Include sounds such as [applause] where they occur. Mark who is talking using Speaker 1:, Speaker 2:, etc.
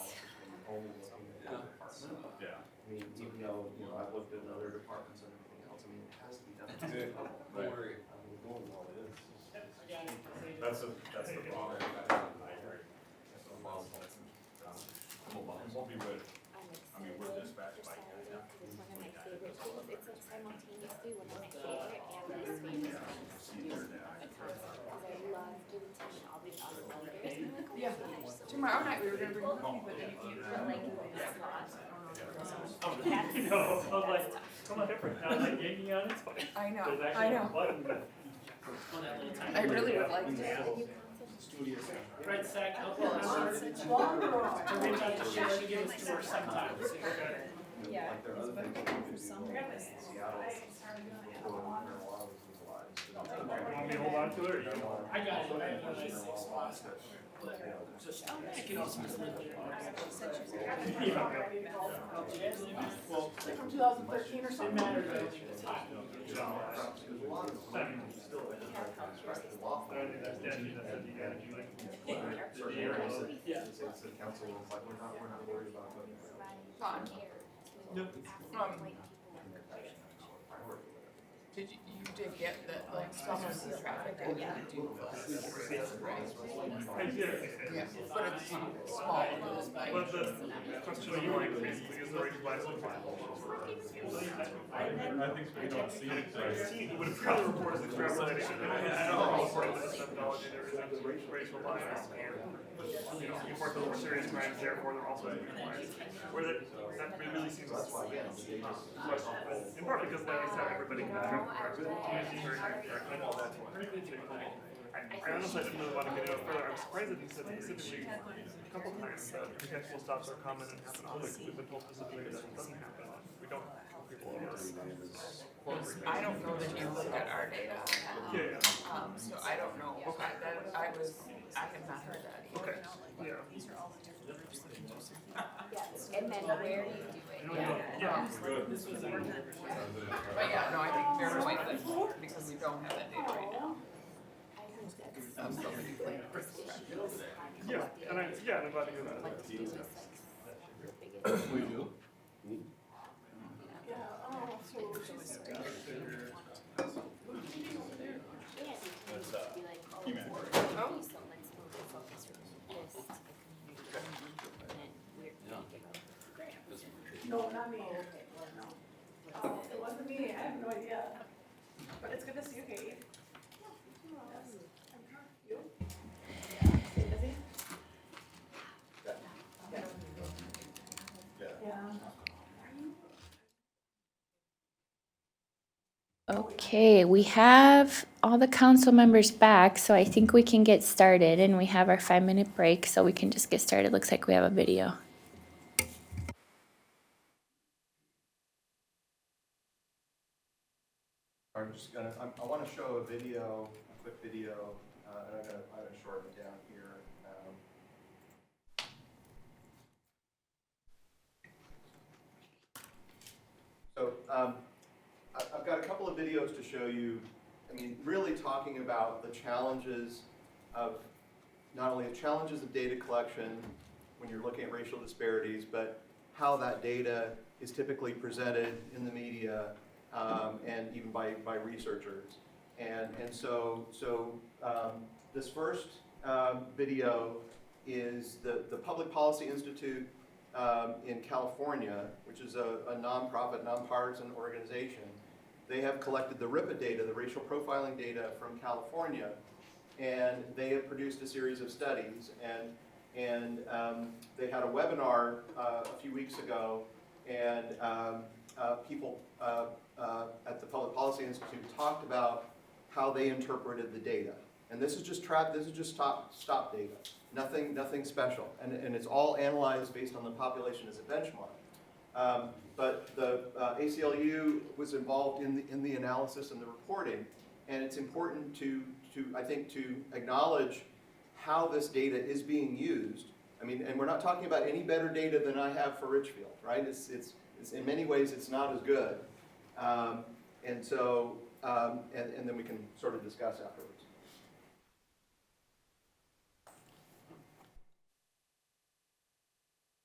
Speaker 1: home in some other department.
Speaker 2: Yeah.
Speaker 1: I mean, even though, you know, I've looked at other departments and everything else, I mean, it has to be done at some level.
Speaker 2: Right.
Speaker 3: Don't worry.
Speaker 1: I mean, going all is.
Speaker 2: That's the, that's the problem. I agree. Um, We'll be with, I mean, we're dispatched by you now.
Speaker 4: It's one of my favorite tools. It's like simultaneously one of my favorite and least favorite things to use a concept, because I love doing teaching all these other leaders. and I'm like, oh my
Speaker 5: Yeah.
Speaker 4: gosh, so
Speaker 5: Tomorrow night, we were gonna bring
Speaker 4: Well,
Speaker 5: coffee, but if you were like, it's not.
Speaker 6: [laughs]
Speaker 4: [laughs] That's,
Speaker 6: You know, I was like,
Speaker 4: that's tough.
Speaker 6: come on, different, I was like, yanking on it, it's like,
Speaker 5: I know,
Speaker 6: there's
Speaker 5: I
Speaker 6: actually a
Speaker 5: know.
Speaker 6: button, but.
Speaker 3: Well, that little
Speaker 5: I
Speaker 3: tiny-
Speaker 5: really would like
Speaker 4: And
Speaker 5: to.
Speaker 4: you concept-
Speaker 1: Studious.
Speaker 3: Fred Sack, help us to reach out to Sheila to give us to her sometimes.
Speaker 1: Yeah. Like there are other things that we could do in Seattle. People who are marijuana was legalized.
Speaker 6: You want me to hold on to it, or you?
Speaker 3: I got it, I have one of those six spots.
Speaker 1: You know,
Speaker 3: Just pick it up some of Well,
Speaker 5: From two thousand thirteen or
Speaker 3: it matters, I don't think it's hot.
Speaker 1: There's a lot of them still in the contract and law.
Speaker 6: I don't think that's definitely, that's what you gotta do, like,
Speaker 1: Certain
Speaker 6: Yeah.
Speaker 1: areas that
Speaker 3: Yeah.
Speaker 1: the city council was like, we're not, we're not worried about going.
Speaker 5: Fine.
Speaker 4: Nope.
Speaker 5: Um,
Speaker 1: Priority.
Speaker 5: Did you, you did get that, like, some of the traffic? that you could do with us,
Speaker 6: I did it.
Speaker 5: Yeah, but it's small, it's like.
Speaker 6: But the question you like basically is the right license.
Speaker 2: I think we don't see it.
Speaker 6: It would have probably reported the travel that it should have. I don't know, for this methodology, there is a racial bias here. You know, you report the more serious crimes, therefore they're also criminalized. Where that, that really seems.
Speaker 1: So that's why, yeah, the
Speaker 6: questionable.
Speaker 1: state just-
Speaker 6: In part because like I said, everybody can drive a car, but it's very hard to drive. I know that's one. I I honestly didn't really want to get out further. I'm surprised that he said specifically a couple times that potential stops are common and happen often. We've been told specifically that it doesn't happen often. We don't tell people this.
Speaker 5: I don't know that you looked at our data on
Speaker 6: Yeah, yeah.
Speaker 5: that, um, so I don't know, okay, that, I was, I have not heard that either.
Speaker 6: Okay. Yeah.
Speaker 4: Yes, and then where do you do it?
Speaker 6: Yeah. Yeah. Good.
Speaker 3: This was a.
Speaker 5: But yeah, no, I think fair point, but because we don't have that data right now,
Speaker 4: I heard that's-
Speaker 5: um, so many like risk factors.
Speaker 6: Yeah. And I, yeah, and I'm glad to hear that.
Speaker 4: Like, to do is like the biggest.
Speaker 2: We do.
Speaker 4: Yeah, oh, so just. Yeah, you can just be like, oh, okay, so let's move the focus from this to the community. And then we're gonna give up the grant.
Speaker 7: No, not me. Oh, it wasn't me, I have no idea. But it's good to see you, Katie. Yes. You? Stay busy? Good.
Speaker 1: Yeah.
Speaker 7: Yeah.
Speaker 8: Okay, we have all the council members back, so I think we can get started and we have our five-minute break, so we can just get started. Looks like we have a video.
Speaker 1: I'm just gonna, I, I wanna show a video, a quick video, uh, and I'm gonna, I'm gonna shorten it down here, um. So, um, I, I've got a couple of videos to show you, I mean, really talking about the challenges of, not only the challenges of data collection when you're looking at racial disparities, but how that data is typically presented in the media, um, and even by, by researchers. And, and so, so um, this first um, video is the, the Public Policy Institute um, in California, which is a, a nonprofit, nonpartisan organization. They have collected the RIPA data, the racial profiling data from California, and they have produced a series of studies. And, and um, they had a webinar uh, a few weeks ago, and um, uh, people uh, uh, at the Public Policy Institute talked about how they interpreted the data. And this is just trap, this is just stop, stop data, nothing, nothing special. And, and it's all analyzed based on the population as a benchmark. Um, But the uh, ACLU was involved in the, in the analysis and the reporting. And it's important to, to, I think, to acknowledge how this data is being used. I mean, and we're not talking about any better data than I have for Richfield, right? It's, it's, it's, in many ways, it's not as good. Um, and so, um, and, and then we can sort of discuss afterwards.